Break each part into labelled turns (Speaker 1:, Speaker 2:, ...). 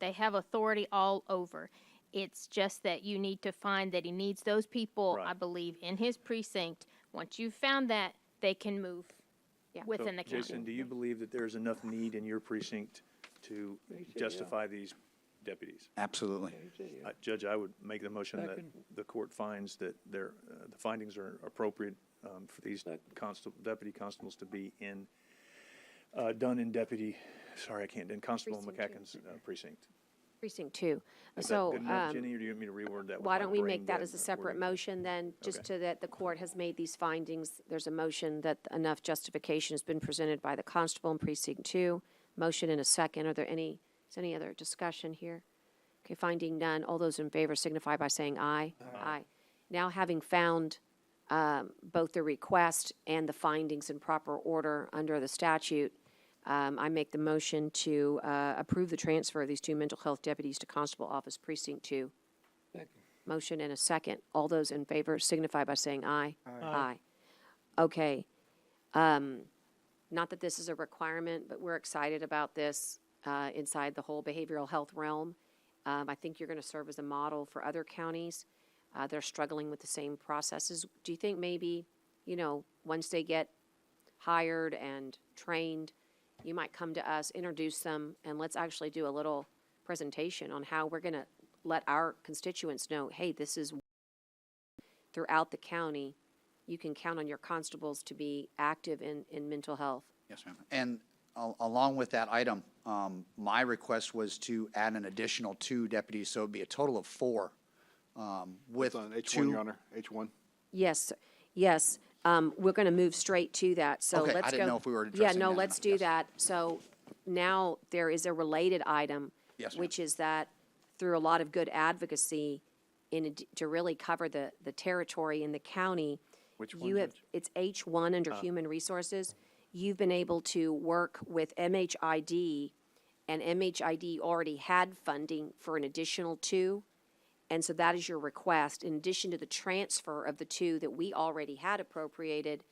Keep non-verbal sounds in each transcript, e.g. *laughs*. Speaker 1: They have authority all over. It's just that you need to find that he needs those people, I
Speaker 2: Right.
Speaker 1: believe, in his precinct. Once you've found that, they can move
Speaker 2: So,
Speaker 1: within the
Speaker 2: Jason,
Speaker 1: county.
Speaker 2: do you believe that there's enough need in your precinct to justify these deputies?
Speaker 3: Absolutely.
Speaker 2: I- Judge, I would make the motion that
Speaker 4: Second.
Speaker 2: the court finds that their, uh, the findings are appropriate um, for these constable, deputy constables to be in, uh, done in deputy, sorry, I can't, in Constable McCacken's uh, precinct.
Speaker 5: Precinct two.
Speaker 2: Is that
Speaker 5: So,
Speaker 2: good enough,
Speaker 5: um,
Speaker 2: Jenny, or do you want me to reword that? with
Speaker 5: why
Speaker 2: my
Speaker 5: don't we
Speaker 2: brain
Speaker 5: make that
Speaker 2: dead
Speaker 5: as a
Speaker 2: wording?
Speaker 5: separate motion then, just
Speaker 2: Okay.
Speaker 5: to that the court has made these findings? There's a motion that enough justification has been presented by the constable in precinct two. Motion in a second. Are there any, is any other discussion here? Okay, finding none. All those in favor signify by saying aye. Aye. Now, having found um, both the request and the findings in proper order under the statute, um, I make the motion to uh, approve the transfer of these two mental health deputies to Constable Office Precinct Two. Motion and a second. All those in favor signify by saying aye. Aye. Okay. Um, Not that this is a requirement, but we're excited about this uh, inside the whole behavioral health realm. Um, I think you're going to serve as a model for other counties. Uh, They're struggling with the same processes. Do you think maybe, you know, once they get hired and trained, you might come to us, introduce them, and let's actually do a little presentation on how we're going to let our constituents know, hey, this is throughout the county, you can count on your constables to be active in, in mental health.
Speaker 3: Yes, ma'am. And al- along with that item, um, my request was to add an additional two deputies, so it'd be a total of four. um, With
Speaker 6: It's on H one,
Speaker 3: two.
Speaker 6: Your Honor, H one.
Speaker 5: Yes, yes. Um, we're going to move straight to that, so
Speaker 3: Okay, I
Speaker 5: let's go.
Speaker 3: didn't know if we were addressing
Speaker 5: Yeah,
Speaker 3: that
Speaker 5: no,
Speaker 3: or
Speaker 5: let's
Speaker 3: not.
Speaker 5: do
Speaker 3: Yes.
Speaker 5: that. So now there is a related item.
Speaker 3: Yes, ma'am.
Speaker 5: Which is that through a lot of good advocacy in, ad- to really cover the, the territory in the county.
Speaker 2: Which
Speaker 5: you
Speaker 2: one,
Speaker 5: have-
Speaker 2: Judge?
Speaker 5: It's H one
Speaker 3: Uh.
Speaker 5: under Human Resources. You've been able to work with MHID, and MHID already had funding for an additional two. And so that is your request. In addition to the transfer of the two that we already had appropriated,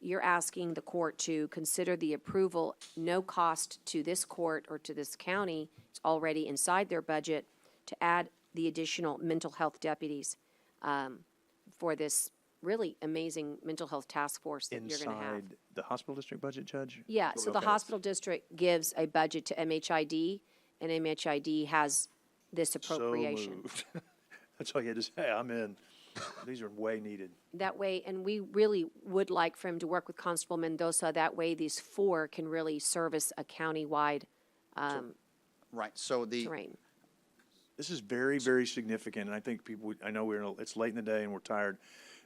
Speaker 5: you're asking the court to consider the approval, no cost to this court or to this county, it's already inside their budget, to add the additional mental health deputies um, for this really amazing mental health task force that you're going to have.
Speaker 2: Inside the hospital district budget, Judge?
Speaker 5: Yeah, so the
Speaker 2: Okay.
Speaker 5: hospital district gives a budget to MHID, and MHID has this
Speaker 2: So
Speaker 5: appropriation.
Speaker 2: moved. *laughs* That's all you had to say, I'm in. These are way needed.
Speaker 5: That way, and we really would like for him to work with Constable Mendoza. That way, these four can really service a countywide um,
Speaker 3: Right, so the,
Speaker 5: terrain.
Speaker 2: This is very, very significant, and I think people, would- I know we're, in a- it's late in the day and we're tired,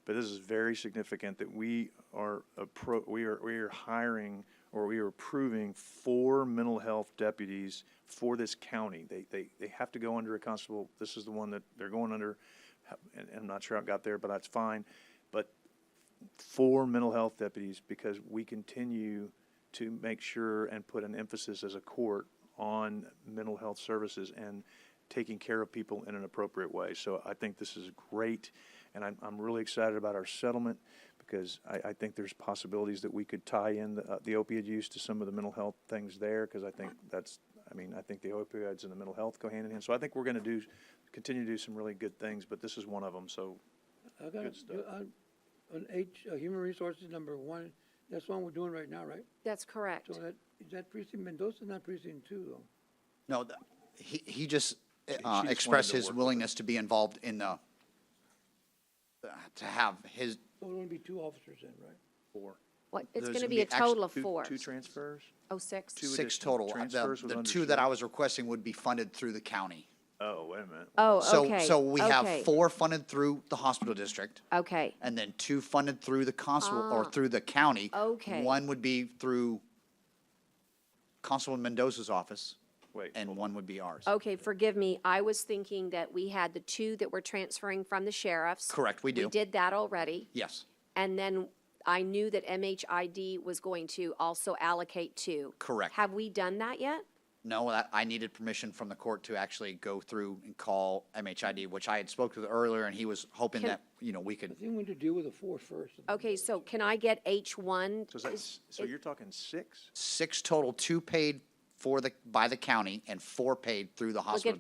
Speaker 2: but this is very significant that we are appro, we are, we are hiring or we are approving four mental health deputies for this county. They, they, they have to go under a constable. This is the one that they're going under, and, and I'm not sure how it got there, but that's fine. But four mental health deputies because we continue to make sure and put an emphasis as a court on mental health services and taking care of people in an appropriate way. So I think this is great, and I'm, I'm really excited about our settlement because I, I think there's possibilities that we could tie in the, uh, the opioid use to some of the mental health things there because I think that's, I mean, I think the opioids and the mental health go hand in hand. So I think we're going to do, continue to do some really good things, but this is one of them. So
Speaker 4: I got,
Speaker 2: Good stuff.
Speaker 4: a- on, on H, uh, Human Resources, number one, that's the one we're doing right now, right?
Speaker 5: That's correct.
Speaker 4: So that, is that precinct, Mendoza, not precinct two, though?
Speaker 3: no, the- he, he just uh,
Speaker 2: wanted
Speaker 3: expressed
Speaker 2: to
Speaker 3: his
Speaker 2: work with
Speaker 3: willingness to be involved in the, uh, to have his,
Speaker 4: So there'll only be two officers then, right?
Speaker 2: four.
Speaker 5: What, it's
Speaker 3: Those
Speaker 5: going to
Speaker 3: would
Speaker 5: be
Speaker 3: be
Speaker 5: a
Speaker 3: actu-
Speaker 5: total of
Speaker 2: Two-
Speaker 5: four.
Speaker 2: Two transfers?
Speaker 5: Oh, six?
Speaker 2: two
Speaker 3: six
Speaker 2: additional
Speaker 3: total. The-
Speaker 2: transfers was
Speaker 3: The
Speaker 2: under
Speaker 3: two that I
Speaker 2: seven.
Speaker 3: was requesting would be funded through the county.
Speaker 2: Oh, wait a minute.
Speaker 5: Oh,
Speaker 3: So-
Speaker 5: okay.
Speaker 3: So we have
Speaker 5: okay,
Speaker 3: four funded through the hospital district.
Speaker 5: Okay,
Speaker 3: and then two funded through the constable or through the county.
Speaker 5: Ah, okay.
Speaker 3: One would be through Constable Mendoza's office.
Speaker 2: Wait,
Speaker 3: And one would be ours.
Speaker 5: okay, forgive me. I was thinking that we had the two that we're transferring from the sheriffs.
Speaker 3: Correct, we do.
Speaker 5: We did that already.
Speaker 3: Yes,
Speaker 5: And then I knew that MHID was going to also allocate two.
Speaker 3: Correct.
Speaker 5: Have we done that yet?
Speaker 3: no, that, I needed permission from the court to actually go through and call MHID, which I had spoke with earlier, and he was hoping
Speaker 5: Can-
Speaker 3: that, you know, we could,
Speaker 4: I think we need to deal with the four first. and then
Speaker 5: Okay,
Speaker 4: the-
Speaker 5: so can I get H one?
Speaker 2: so is that, s- so you're talking six?
Speaker 3: six total, two paid for the, by the county and four paid through the hospital